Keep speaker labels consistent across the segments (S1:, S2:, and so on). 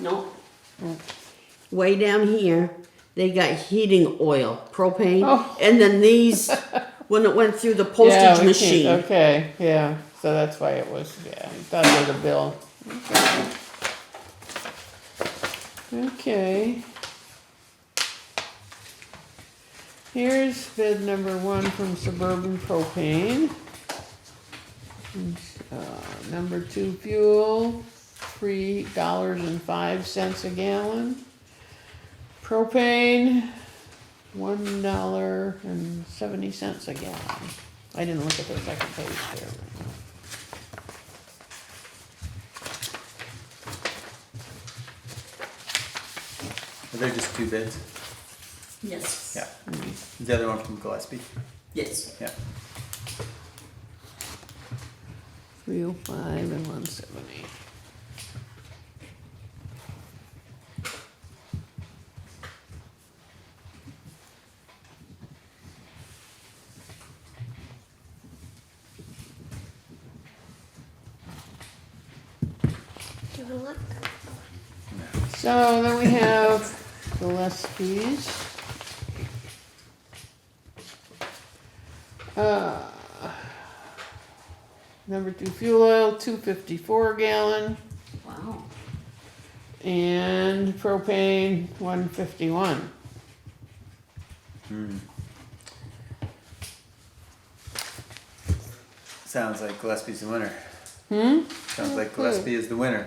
S1: no. Mm. Way down here, they got heating oil, propane,
S2: Oh.
S1: and then these when it went through the
S2: Yeah, we
S1: postage
S2: can't-
S1: machine.
S2: Okay, yeah, so that's why it was, yeah, that was a bill. Okay. Here's bid number one from Suburban Propane. Uh, number two fuel, three dollars and five cents a gallon. Propane, one dollar and seventy cents a gallon. I didn't look at the second page there.
S3: Are there just two bids?
S1: Yes.
S3: Yeah.
S2: Mm-hmm.
S3: Is the other one from Gillespie?
S1: Yes.
S3: Yeah.
S2: Three oh five and one seventy.
S4: Do you want to look?
S2: So then we have Gillespie's. Uh, Number two fuel oil, two fifty-four gallon,
S1: Wow.
S2: and propane, one fifty-one.
S3: Sounds like Gillespie's the winner.
S2: Hmm?
S3: Sounds like Gillespie is the winner.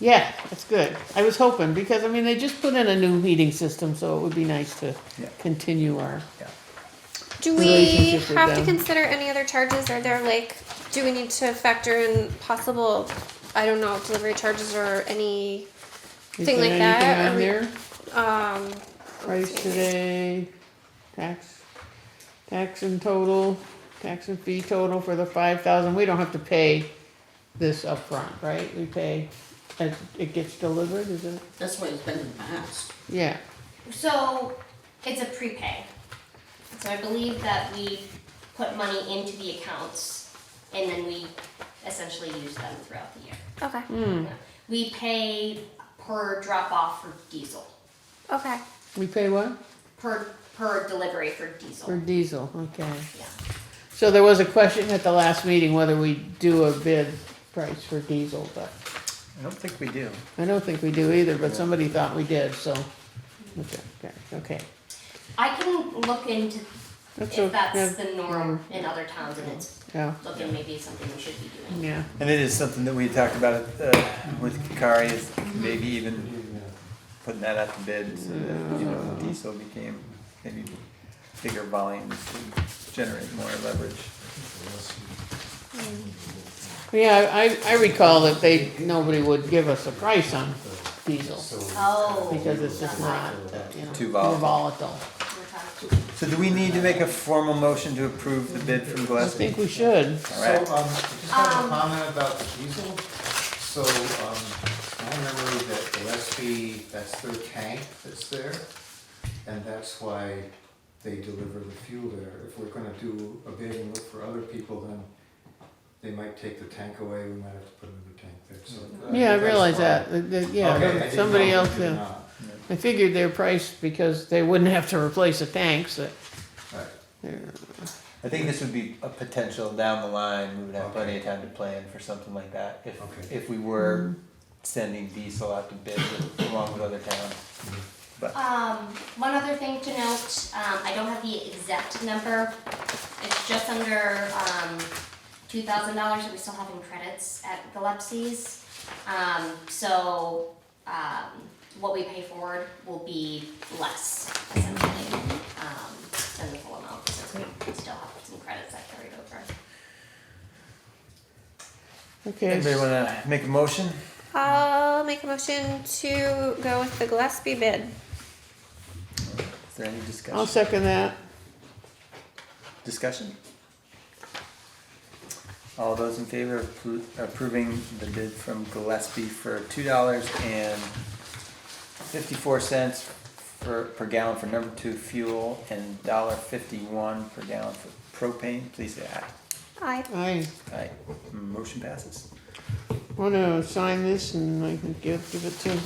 S2: Yeah, that's good. I was hoping, because I mean, they just put in a new heating system, so it would be nice to
S3: Yeah.
S2: continue our.
S4: Do we
S2: Relationship with
S4: have to
S2: them.
S4: consider any other charges? Are there like, do we need to factor in possible, I don't know, delivery charges or any,
S2: Is
S4: Thing
S2: there
S4: like that,
S2: anything on
S4: or we-
S2: there?
S4: um,
S2: Price today, tax, tax and total, tax and fee total for the five thousand, we don't have to pay this upfront, right? We pay, as it gets delivered, is it?
S1: That's why it's been in the past.
S2: Yeah,
S5: So it's a prepay. So I believe that we put money into the accounts and then we essentially use them throughout the year.
S4: okay,
S2: Hmm.
S5: We pay per drop off for diesel,
S4: okay.
S2: we pay what?
S5: per, per delivery for
S2: For
S5: diesel.
S2: diesel, okay.
S5: Yeah.
S2: So there was a question at the last meeting whether we do a bid price for diesel, but.
S3: I don't think we do.
S2: I don't think we do either, but somebody thought we did, so, okay, okay, okay.
S5: I can look into
S2: That's o-
S5: if
S2: yeah,
S5: that's the norm in other towns and it's
S2: Yeah,
S5: looking maybe something we should be doing.
S2: yeah,
S3: And it is something that we talked about uh, with Kikari, is maybe even putting that out to bid so that, you know, diesel became maybe bigger volumes to generate more leverage.
S2: yeah, I, I recall that they, nobody would give us a price on diesel,
S5: Oh.
S2: because it's just not, uh, you know.
S3: Too volatile.
S2: volatile.
S5: Okay.
S3: So do we need to make a formal motion to approve the bid from
S2: I
S3: Gillespie?
S2: think we should,
S3: All
S6: So, um, I
S3: right.
S6: just have a
S5: Um,
S6: comment about the diesel. So, um, my memory that Gillespie, that's their tank that's there, and that's why they deliver the fuel there. If we're gonna do a bid and look for other people, then they might take the tank away, we might have to put another tank there, so. think
S2: yeah, I
S6: that's
S2: realize
S6: fine.
S2: that, that- that-
S6: Okay,
S2: yeah,
S6: I didn't
S2: somebody
S6: know
S2: else,
S6: if you did
S2: yeah.
S6: not.
S2: I figured their price, because they wouldn't have to replace the tanks, that,
S6: Right.
S2: they're,
S3: I think this would be a potential down the line, we would have
S6: Okay.
S3: plenty of time to plan for something like that, if,
S6: Okay.
S3: if we were sending diesel out to bid with- along with other towns.
S5: Um, one other thing to note, um, I don't have the exact number. It's just under, um, two thousand dollars that we still have in credits at Gillespie's. Um, so, um, what we pay forward will be less essentially, um, than the full amount, since we still have some credits that carried over.
S2: okay,
S3: Anybody wanna make a motion?
S4: I'll make a motion to go with the Gillespie bid.
S3: Is there any
S2: I'll
S3: discussion?
S2: second that,
S3: Discussion? All those in favor of appro- approving the bid from Gillespie for two dollars and fifty-four cents for, per gallon for number two fuel and dollar fifty-one per gallon for propane, please say aye.
S4: Aye.
S2: I
S3: Aye, motion passes.
S2: wanna sign this and I can give, give it to